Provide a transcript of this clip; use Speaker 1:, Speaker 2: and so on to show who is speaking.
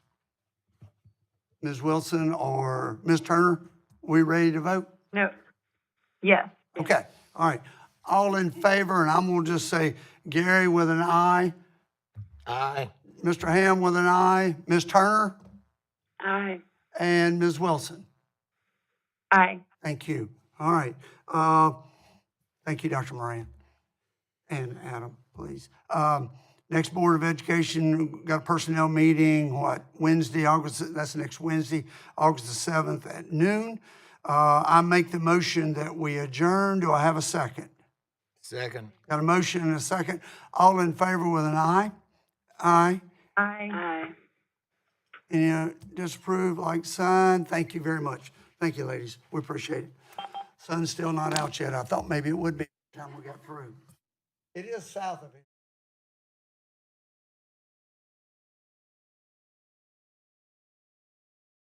Speaker 1: Ms. Wilson or Ms. Turner, we ready to vote?
Speaker 2: No. Yes.
Speaker 1: Okay, all right. All in favor, and I'm gonna just say Gary with an aye,
Speaker 3: Aye.
Speaker 1: Mr. Ham with an aye, Ms. Turner,
Speaker 2: Aye.
Speaker 1: and Ms. Wilson.
Speaker 2: Aye.
Speaker 1: Thank you. All right. Uh, Thank you, Dr. Moran. And Adam, please. Um, Next Board of Education, got a personnel meeting, what, Wednesday, August, that's next Wednesday, August the 7th at noon. Uh, I make the motion that we adjourn. Do I have a second?
Speaker 3: Second.
Speaker 1: Got a motion and a second. All in favor with an aye? Aye.
Speaker 2: Aye. Aye.
Speaker 1: Any uh, disapprove, like sign? Thank you very much. Thank you, ladies. We appreciate it. Sun's still not out yet. I thought maybe it would be by the time we got through. It is south of it.